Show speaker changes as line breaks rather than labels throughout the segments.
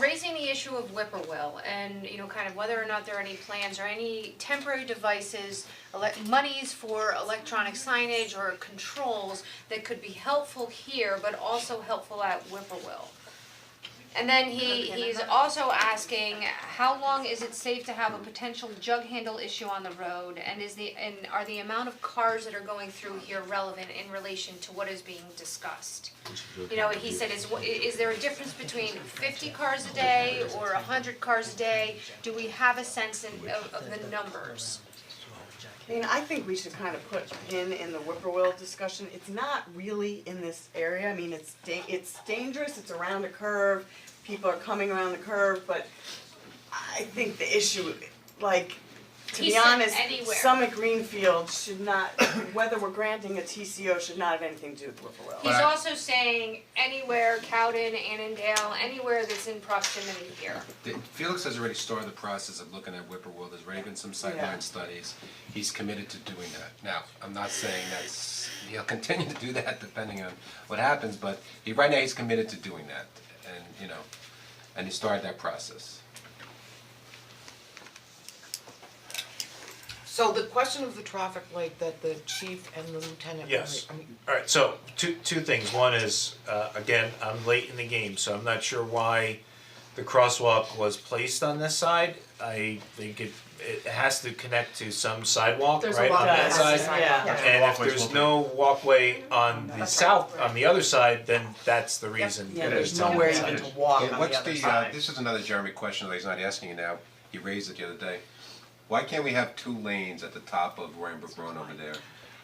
raising the issue of whippoorwill and, you know, kind of whether or not there are any plans or any temporary devices, elec monies for electronic signage or controls that could be helpful here, but also helpful at whippoorwill. And then he he's also asking, how long is it safe to have a potential jug handle issue on the road? And is the, and are the amount of cars that are going through here relevant in relation to what is being discussed? You know, he said, is wha- is there a difference between fifty cars a day or hundred cars a day? Do we have a sense in of of the numbers?
I mean, I think we should kind of put pin in the whippoorwill discussion, it's not really in this area, I mean, it's da- it's dangerous, it's around a curve, people are coming around the curve, but I think the issue, like, to
He
be
said
honest,
anywhere.
Summit Greenfield should not, whether we're granting a TCO should not have anything to do with whippoorwill.
He's also saying anywhere Cowden, Annandale, anywhere that's in proximity here.
The- Felix has already started the process of looking at Whippoorwill, there's already been some
Yeah.
sightline studies, he's committed to doing that. Now, I'm not saying that's, he'll continue to do that depending on what happens, but he, right now, he's committed to doing that, and, you know, and he started that process.
So the question of the traffic light that the chief and the lieutenant were,
Yes.
I mean,
Alright, so two two things. One is, uh again, I'm late in the game, so I'm not sure why the crosswalk was placed on this side. I think it it has to connect to some sidewalk,
there's a
right,
lot
on
of
that side.
access sidewalk.
Yeah.
And if there's no walkway on the south, on the other side, then that's the reason.
Yeah,
that
there's
it's on
nowhere
that
even
side.
to walk on
Yeah,
the
what's
other
the, uh,
side.
this is another Jeremy question that he's not asking you now, he raised it the other day. Why can't we have two lanes at the top of Roaring Brook Road over there?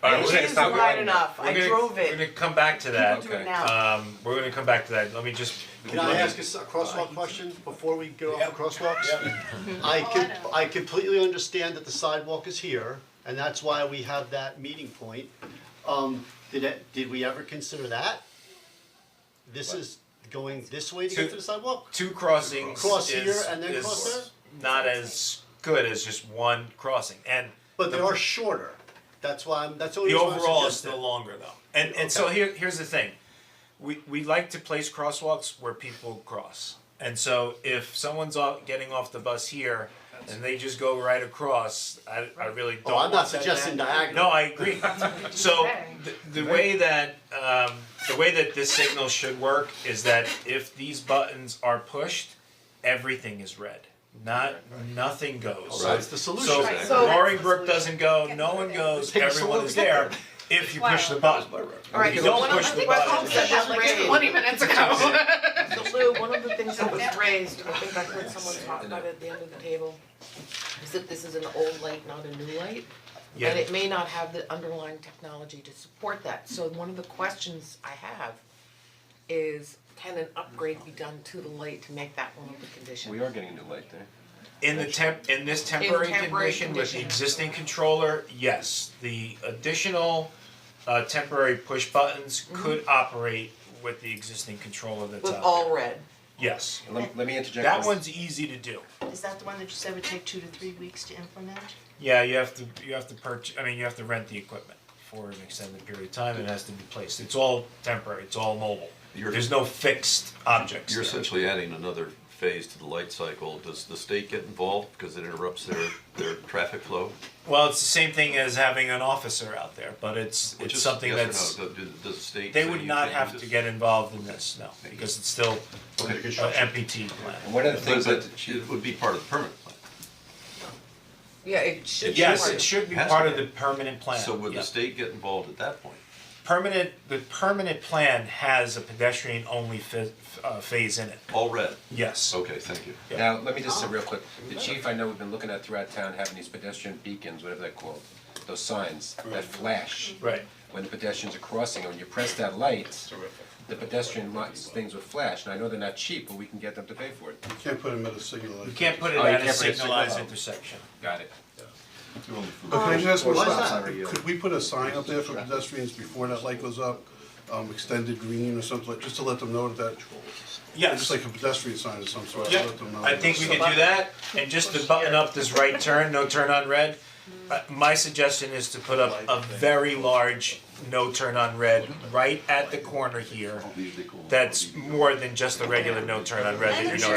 I
Alright, we're
understand
It
it's
is
not
wide enough,
We're
I
gonna-
drove
We're
it,
gonna come back to that.
people do
okay.
it now.
Um, we're gonna come back to that. Let me just.
Can I ask a s- a crosswalk question before we go off crosswalks? I can, I completely understand that the sidewalk is here, and that's why we have that meeting point. Um, did it, did we ever consider that? This is going this way to get to the sidewalk?
two crossings
Cross here
is-
and then
is
cross there?
Not as good as just one crossing, and
But they are shorter, that's why I'm, that's the only
the
reason why I'm
overall is
suggesting.
still longer though. And and so here here's the thing, we we like to place crosswalks where people cross, and so if someone's off, getting off the bus here. And they just go right across. I, I really don't.
Oh, I'm not
want that
suggesting
to happen.
diagonal.
No, I agree. So the, the way that um, the way that this signal should work is that if these buttons are pushed, everything is red. Not nothing goes.
So it's the solution.
So
Right.
So-
Roaring Brook doesn't go, no one goes,
Take us a
everyone
little
is
bit.
there, if you push the button.
Alright,
If you
so
don't
one of-
push
I
the
think
button-
Paul said that like
twenty minutes ago.
So Lou, one of the things that was raised, I think I heard someone talk about it at the end of the table, is that this is an old light, not a new light.
Yeah.
And it may not have the underlying technology to support that, so one of the questions I have is, can an upgrade be done to the light to make that one of the conditions?
We are getting a new light there.
In the temp, in this temporary
temporary
condition with the
condition.
existing controller, yes, the additional uh temporary push buttons could operate with the existing controller that's
Mm-hmm. With
out there.
all red.
Yes,
Let, let me interject.
that
one-
one's easy to do.
Is that the one that you said would take two to three weeks to implement?
Yeah, you have to, you have to purch, I mean, you have to rent the equipment for an extended period of time, and it has to be placed, it's all temporary, it's all mobile.
You're-
There's no fixed objects
You're
there.
essentially adding another phase to the light cycle. Does the state get involved because it interrupts their, their traffic flow?
Well, it's the same thing as having an officer out there, but it's,
Which
it's
is-
something
yes or
that's,
no? Do- do- Does the state?
they
say
would
you
not
can't
have
use
to
this?
get involved in this, no, because it's still an
Under construction.
MPT plan.
One of the
But
things that the
but
chief
it would be part of the permit plan.
Yeah, it should be.
Yes,
orange.
it should be
Has
part
to
of
be.
the permanent plan,
So would
yeah.
the state get involved at that point?
Permanent, the permanent plan has a pedestrian-only fi- uh, phase in it,
All red?
yes.
Okay, thank you.
Yeah.
Now, let me just say real quick, the chief, I know we've been looking at throughout town having these pedestrian beacons, whatever they're called, those signs that flash.
Right.
When the pedestrians are crossing, when you press that light, the pedestrian lights, things would flash, and I know they're not cheap, but we can get them to pay for it.
You can't put them at a signal
You can't put it
Oh, you
at a
can't put a signal
signalized
out.
intersection.
Got it.
But can I just ask one
Why is
stop
that?
sign? Could we put a sign up there for pedestrians before that light goes up, um, extended green or something, like- just to let them know that, just
Yes,
like a pedestrian sign of some sort, to
yeah,
let them know.
I think we could do that, and just to button up this right turn, no turn on red. uh, My suggestion is to put up a very large no turn on red right at the corner here. That's more than just a regular no turn on red that you know.